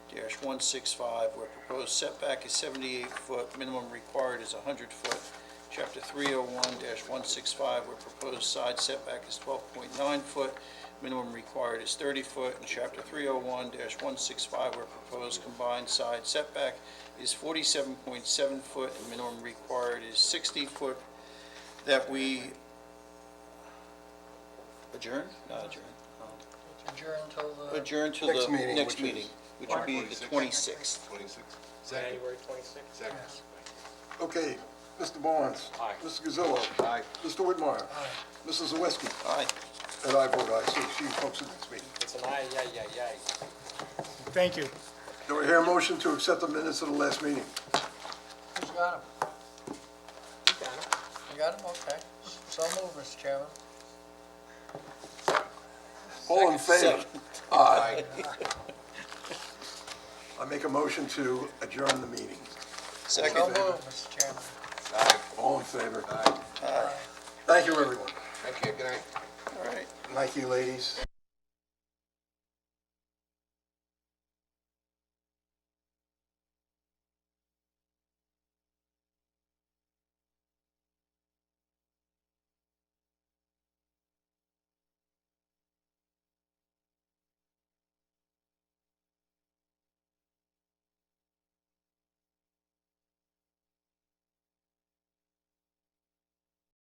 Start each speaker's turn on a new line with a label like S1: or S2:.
S1: one six five, where proposed setback is seventy-eight foot, minimum required is hundred foot. Chapter three oh one one six five, where proposed side setback is twelve point nine foot, minimum required is thirty foot. And chapter three oh one one six five, where proposed combined side setback is forty-seven point seven foot, and minimum required is sixty foot, that we adjourn, not adjourn, um,
S2: Adjourn uh, until the...
S1: adjourn to
S3: Uh, Next
S1: the
S3: meeting,
S1: next
S3: which is-
S1: meeting, which would be the twenty-sixth.
S4: Twenty-six. Second.
S5: January 26th.
S4: Second.
S3: Okay, Mr. Barnes.
S5: Aye.
S3: Mr. Gazillo.
S4: Aye.
S3: Mr. Whitmire.
S2: Aye.
S3: Mrs. Zawiski.
S1: All right.
S3: And I vote aye, so see you folks at the next meeting.
S5: It's an aye, yay, yay, yay.
S6: Thank you.
S3: Do I hear a motion to accept the minutes of the last meeting?
S2: Who's got him?
S5: You got it.
S2: You got him? Okay. So moved, Mr. Chairman.
S3: All in favor?
S1: Second.
S3: Aye. I make a motion to adjourn the meeting.
S2: So
S1: Second.
S2: moved, Mr. Chairman.
S4: Aye.
S3: All in favor?
S4: Aye.
S3: Thank you, everyone.
S4: Thank you, good night.
S1: All right.
S3: Thank you, ladies.